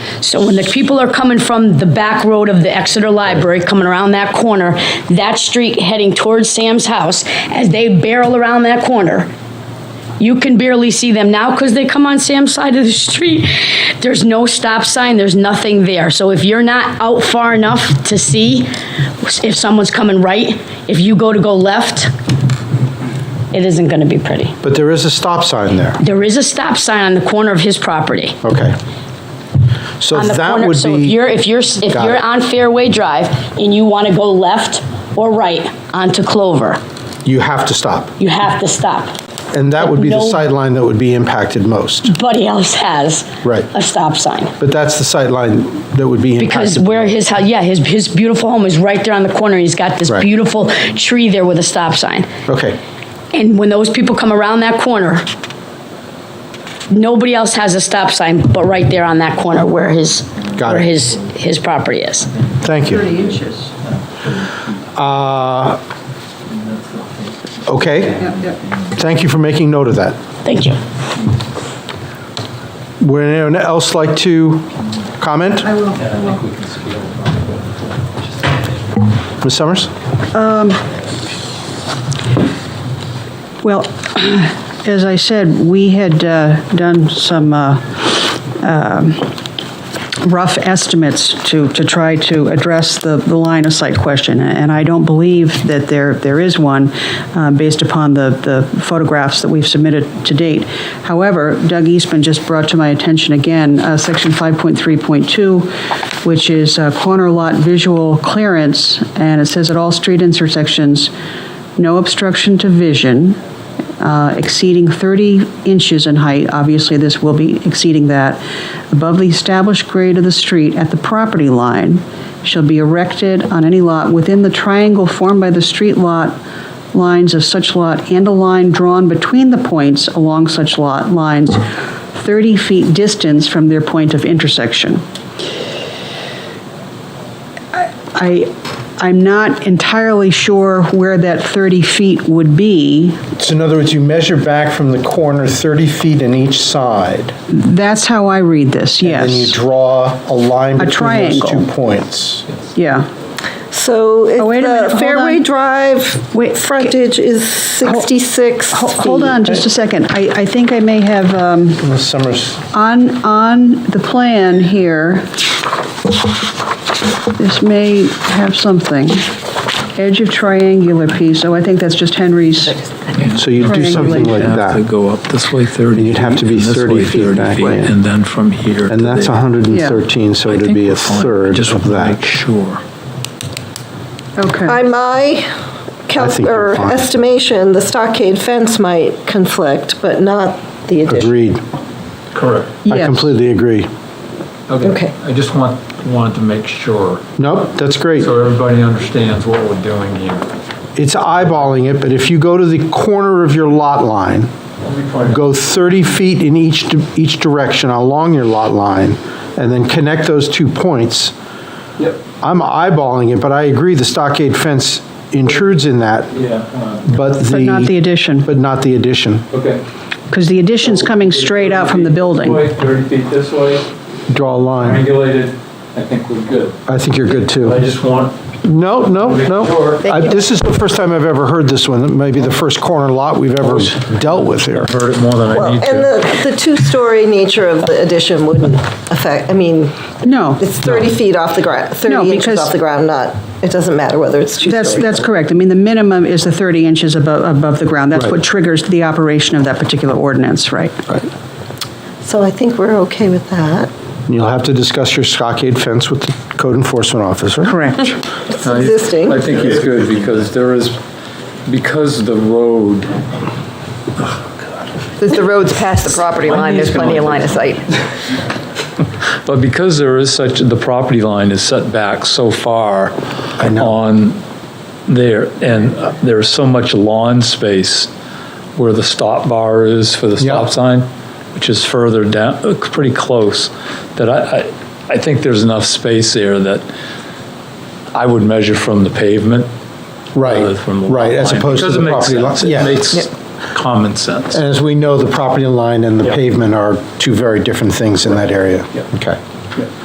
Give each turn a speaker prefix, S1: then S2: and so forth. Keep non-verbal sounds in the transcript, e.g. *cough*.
S1: So when the people are coming from the back road of the Exeter Library, coming around that corner, that street heading towards Sam's house, as they barrel around that corner, you can barely see them now because they come on Sam's side of the street. There's no stop sign, there's nothing there. So if you're not out far enough to see if someone's coming right, if you go to go left, it isn't gonna be pretty.
S2: But there is a stop sign there.
S1: There is a stop sign on the corner of his property.
S2: Okay. So
S1: on the
S2: that
S1: corner.
S2: would
S1: So if
S2: be,
S1: you're, if you're, if
S2: Got
S1: you're
S2: it.
S1: on Fairway Drive and you want to go left or right onto Clover,
S2: you have to stop.
S1: you have to stop.
S2: And that would be the
S1: No-
S2: sightline that would be impacted most.
S1: Buddy else has
S2: Right.
S1: a stop sign.
S2: But that's the sightline that would be
S1: Because
S2: impacted.
S1: where his, hou- yeah, his, his beautiful home is right there on the corner. He's got this
S2: Right.
S1: beautiful tree there with a stop sign.
S2: Okay,
S1: And when those people come around that corner, nobody else has a stop sign but right there on that corner where his,
S2: Got
S1: where
S2: it.
S1: his, his property is.
S2: thank you.
S3: 30 inches.
S2: Okay,
S3: Yep, yep.
S2: thank you for making note of that.
S1: Thank you.
S2: Would anyone else like to comment?
S3: I will, I will.
S2: Ms. Summers?
S3: Well, *clears throat* as I said, we had uh, done some uh, um, rough estimates to, to try to address the, the line of sight question, and I don't believe that there, there is one uh, based upon the, the photographs that we've submitted to date. However, Doug Eastman just brought to my attention again, uh, section 5.3.2, which is uh, corner lot visual clearance, and it says at all street intersections, no obstruction to vision uh, exceeding 30 inches in height, obviously this will be exceeding that, above the established grade of the street at the property line shall be erected on any lot within the triangle formed by the street lot lines of such lot and a line drawn between the points along such lot lines 30 feet distance from their point of intersection. I, I'm not entirely sure where that 30 feet would be.
S2: So in other words, you measure back from the corner 30 feet in each side.
S3: That's how I read this,
S2: And you
S3: yes.
S2: draw a line
S3: A
S2: between those two
S3: triangle.
S2: points.
S3: Yeah.
S4: So if
S3: Oh, wait a minute,
S4: the
S3: hold
S4: Fairway
S3: on.
S4: Drive
S3: Wait,
S4: frontage is 66
S3: Ho- Hold
S4: feet.
S3: on just a second. I, I think I may have, um,
S2: Ms. Summers?
S3: on, on the plan here, this may have something. Edge of triangular piece, oh, I think that's just Henry's.
S2: So you'd do something like
S3: Triangulation.
S2: that.
S5: have to go up this way 30
S2: You'd have to be
S5: feet, and this
S2: 30
S5: way
S2: feet back in.
S5: And then from here
S2: And
S5: to
S2: that's
S5: there.
S2: 113, so
S5: I
S2: it'd
S5: think
S2: be
S5: we're
S2: a
S5: fine. I
S2: third
S5: just want
S2: of
S5: to make
S2: that.
S5: sure.
S3: Okay.
S4: By my
S2: I
S4: calc,
S2: think you're
S4: or
S2: fine.
S4: estimation, the stockade fence might conflict, but not the addition.
S2: Agreed.
S5: Correct.
S2: I
S3: Yes.
S2: completely agree.
S4: Okay.
S5: I just want, wanted to make sure,
S2: Nope, that's great.
S5: so everybody understands what we're doing here.
S2: It's eyeballing it, but if you go to the corner of your lot line, go 30 feet in each, di- each direction along your lot line, and then connect those two points,
S5: Yep,
S2: I'm eyeballing it, but I agree the stockade fence intrudes in that,
S5: yeah,
S2: but the.
S3: But not the addition,
S2: But not the addition.
S5: okay.
S3: because the addition's coming straight out from the building.
S5: 30 feet this way,
S2: Draw a line.
S5: regulated, I think we're good.
S2: I think you're good, too.
S5: I just want
S2: No, no, no.
S5: Sure.
S2: I- This is the first time I've ever heard this one. It may be the first corner lot we've ever dealt with here.
S5: heard it more than I
S4: Well,
S5: need to.
S4: and the, the two-story nature of the addition wouldn't affect, I mean,
S3: No.
S4: it's 30 feet off the ground,
S3: No,
S4: 30 inches
S3: because-
S4: off the ground, not, it doesn't matter whether it's two-story.
S3: That's, that's correct. I mean, the minimum is the 30 inches above, above the ground. That's
S2: Right.
S3: what triggers the operation of that particular ordinance, right?
S4: So I think we're okay with that.
S2: You'll have to discuss your stockade fence with the code enforcement officer.
S3: Correct.
S4: It's
S6: I-
S4: existing.
S6: I think it's good because there is, because the road,
S7: Since the road's past the property line, there's plenty of line of sight.
S6: but because there is such, the property line is set back so far on there, and there's so much lawn space where the stop bar is for the
S2: Yeah.
S6: stop sign, which is further down, uh, pretty close, that I, I, I think there's enough space there that I would measure from the pavement. rather
S2: Right,
S6: Uh, from the lot
S2: right, as
S6: line,
S2: opposed to
S6: because it
S2: the
S6: makes
S2: property line.
S6: sense.
S2: Yeah.
S6: It makes common sense.
S2: And as we know, the property line and the
S6: Yeah.
S2: pavement are two very different things in that area.
S6: Yeah.
S2: Okay.